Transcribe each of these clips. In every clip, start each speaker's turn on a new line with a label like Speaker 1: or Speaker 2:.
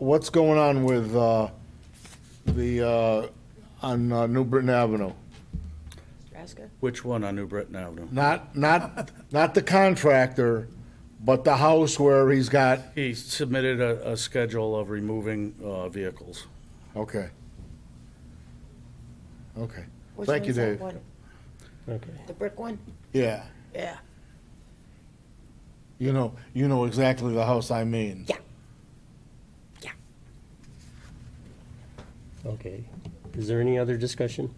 Speaker 1: what's going on with uh, the, uh, on uh, New Britain Avenue?
Speaker 2: Nebraska?
Speaker 3: Which one on New Britain Avenue?
Speaker 1: Not, not, not the contractor, but the house where he's got,
Speaker 3: He submitted a, a schedule of removing, uh, vehicles.
Speaker 1: okay. Okay.
Speaker 2: Which
Speaker 1: Thank you,
Speaker 2: one's that
Speaker 1: Dave.
Speaker 2: one?
Speaker 4: Okay.
Speaker 2: The brick one?
Speaker 1: Yeah,
Speaker 2: Yeah.
Speaker 1: you know, you know exactly the house I mean.
Speaker 2: Yeah.
Speaker 4: Okay. Is there any other discussion?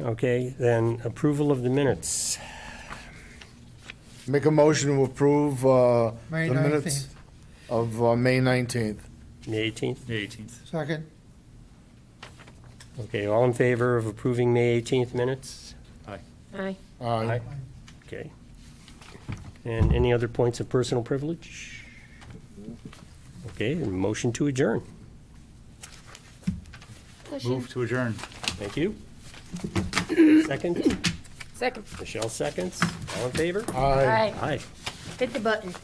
Speaker 4: Okay, then approval of the minutes.
Speaker 1: Make a motion to approve uh,
Speaker 5: May
Speaker 1: the minutes
Speaker 5: 19th.
Speaker 1: of uh, May 19th.
Speaker 4: May 18th?
Speaker 3: Eighteenth.
Speaker 5: Second,
Speaker 4: Okay, all in favor of approving May 18th minutes?
Speaker 2: Aye.
Speaker 1: Aye.
Speaker 4: Okay. And any other points of personal privilege? Okay, and motion to adjourn.
Speaker 3: Move to adjourn.
Speaker 4: Thank you. Second,
Speaker 2: Second.
Speaker 4: Michelle seconds. All in favor?
Speaker 1: Aye.
Speaker 4: Aye.
Speaker 2: Hit the button.